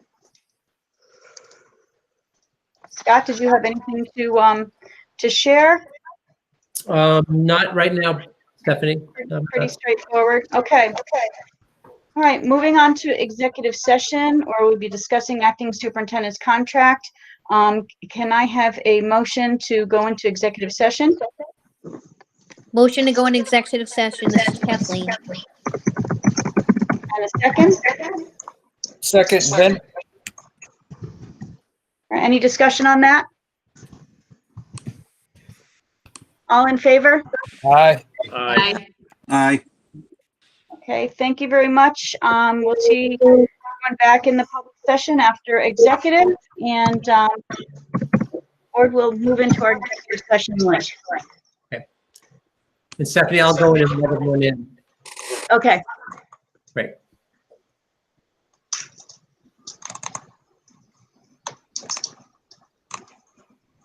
Scott, did you have anything to, um, to share? Um, not right now, Stephanie. Um, Pretty straightforward. Okay. Okay. All right, moving on to executive session, or we'll be discussing acting superintendent's contract. Um, can I have a motion to go into executive session? Motion to go into executive session. This is Kathleen. And a second? Second, Ben. Or Any discussion on that? All in favor? Aye. Aye. Aye. Okay, thank you very much. Um, we'll see everyone back in the public session after executive and, um, board will move into our executive session later. And Stephanie, I'll go in and let everyone in. Okay,